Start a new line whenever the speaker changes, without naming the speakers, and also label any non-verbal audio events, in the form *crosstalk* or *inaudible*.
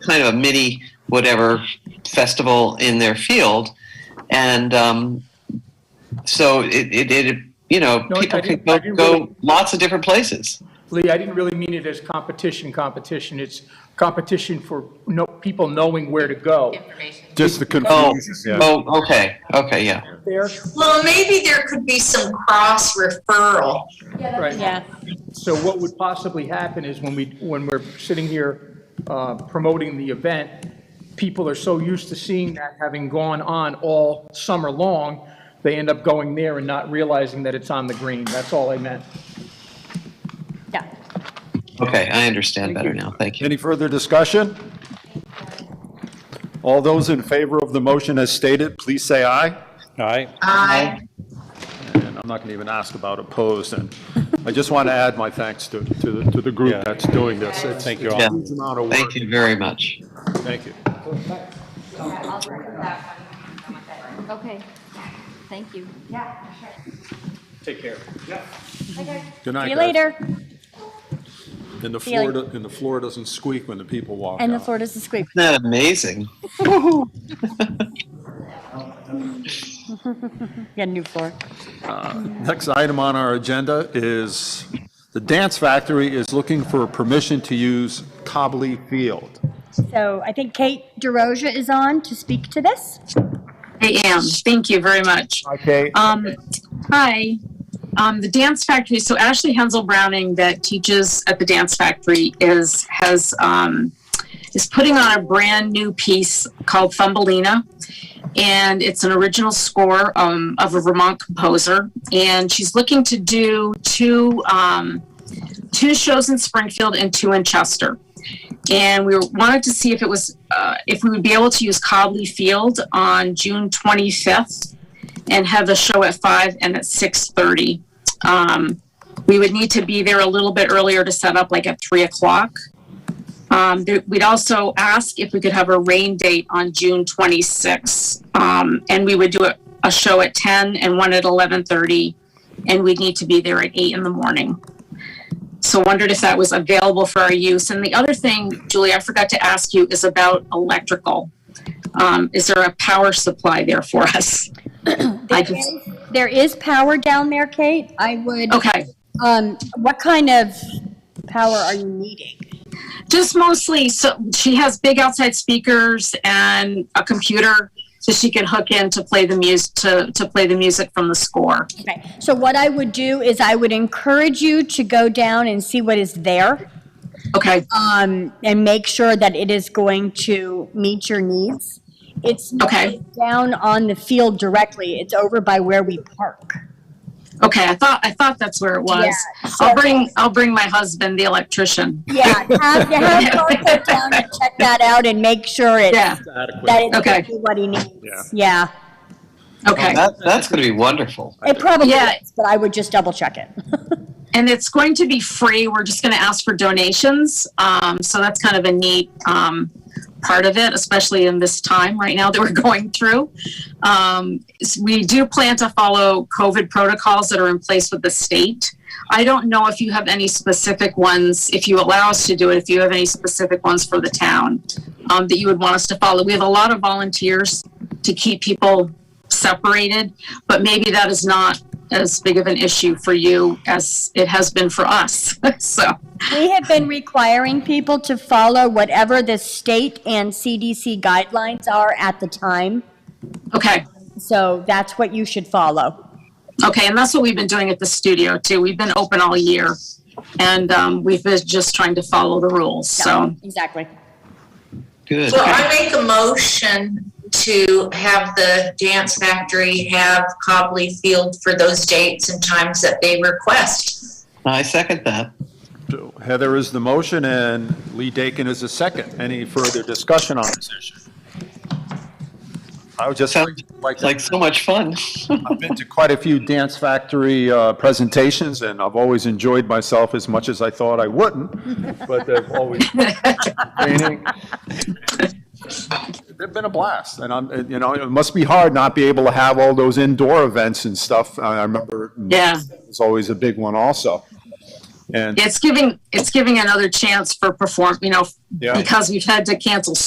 kind of a mini whatever festival in their field, and um, so it, it, it you know
No, I
people can
didn't-
go,
I didn't
go
really-
lots of different places.
Lee, I didn't really mean it as competition, competition. It's competition for no, people knowing where to go.
information.
Just the
Oh,
confusion, yeah.
oh, okay, okay, yeah.
There,
Well, maybe there could be some cross referral.
right.
Yeah,
So what would possibly happen is when we, when we're sitting here uh, promoting the event, people are so used to seeing that, having gone on all summer long, they end up going there and not realizing that it's on the green. That's all I meant.
yeah.
Okay, I understand better now. Thank you.
Any further discussion? All those in favor of the motion as stated, please say aye.
Aye.
Aye.
And I'm not going to even ask about opposed, and I just want to add my thanks to, to the, to the
Yeah.
group that's doing this. It's
Thank you
Yeah.
all.
a huge amount of work.
Thank you very much.
Thank you.
Okay, thank you.
Take care.
Good night,
See you
guys.
later.
And the
See you
floor,
later.
do- and the floor doesn't squeak when the people walk
And the
out.
floor doesn't squeak.
Isn't that amazing?
Yeah, new floor.
Next item on our agenda is, the Dance Factory is looking for permission to use Cobley Field.
So I think Kate DeRosa is on to speak to this.
I am. Thank you very much.
Okay.
Um, hi. Um, the Dance Factory. So Ashley Hensel Browning, that teaches at the Dance Factory, is has um, is putting on a brand new piece called Thumbelina, and it's an original score um, of a Vermont composer. And she's looking to do two um, two shows in Springfield and two in Chester. And we wanted to see if it was uh, if we would be able to use Cobley Field on June 25th and have the show at five and at six thirty. Um, we would need to be there a little bit earlier to set up, like at three o'clock. Um, there, we'd also ask if we could have a rain date on June twenty sixth, um, and we would do a, a show at ten and one at eleven thirty, and we'd need to be there at eight in the morning. So wondered if that was available for our use. And the other thing, Julie, I forgot to ask you is about electrical. Um, is there a power supply there for us? *laughs* I
There
just-
is- There is power down there, Kate. I would,
Okay,
um, what kind of power are you needing?
just mostly, so she has big outside speakers and a computer so she can hook in to play the music, to, to play the music from the score.
Okay, so what I would do is I would encourage you to go down and see what is there
Okay,
um, and make sure that it is going to meet your needs. It's not
Okay.
down on the field directly. It's over by where we park.
okay, I thought, I thought that's where it was.
Yeah, so-
I'll bring, I'll bring my husband, the electrician.
Yeah, *laughs* have, have Mark go down and check that out and make sure it,
Yeah,
that it's
Okay.
exactly what he needs. Yeah,
Oh,
okay.
that, that's going to be wonderful.
it probably
Yeah.
is, but I would just double check it.
And it's going to be free. We're just going to ask for donations. Um, so that's kind of a neat um, part of it, especially in this time right now that we're *laughs* going through. Um, s- we do plan to follow COVID protocols that are in place with the state. I don't know if you have any specific ones, if you allow us to do it, if you have any specific ones for the town um, that you would want us to follow. We have a lot of volunteers to keep people separated, but maybe that is not as big of an issue for you as it has been for us. *laughs* so,
We have been requiring people to follow whatever the state and CDC guidelines are at the time.
okay.
So that's what you should follow.
Okay. And that's what we've been doing at the studio too. We've been open all year and um, we've been just trying to follow the rules.
*laughs*
So,
Exactly.
Good.
So I make a motion to have the Dance Factory have Cobley Field for those dates and times that they request.
I second that.
So Heather is the motion and Lee Dakin is the second. Any further discussion on this issue? I would just
Sounds
like to,
Like so much fun.
I've been to quite a few Dance Factory uh, presentations and I've always enjoyed myself as much as I thought I wouldn't, but they've always training. They've been a blast and I'm, and, you know, it must be hard not be able to have all those indoor events and stuff. I I remember
yeah.
it's always a big one also. And,
It's giving, it's giving another chance for perform, you know,
yeah.
because we've had to cancel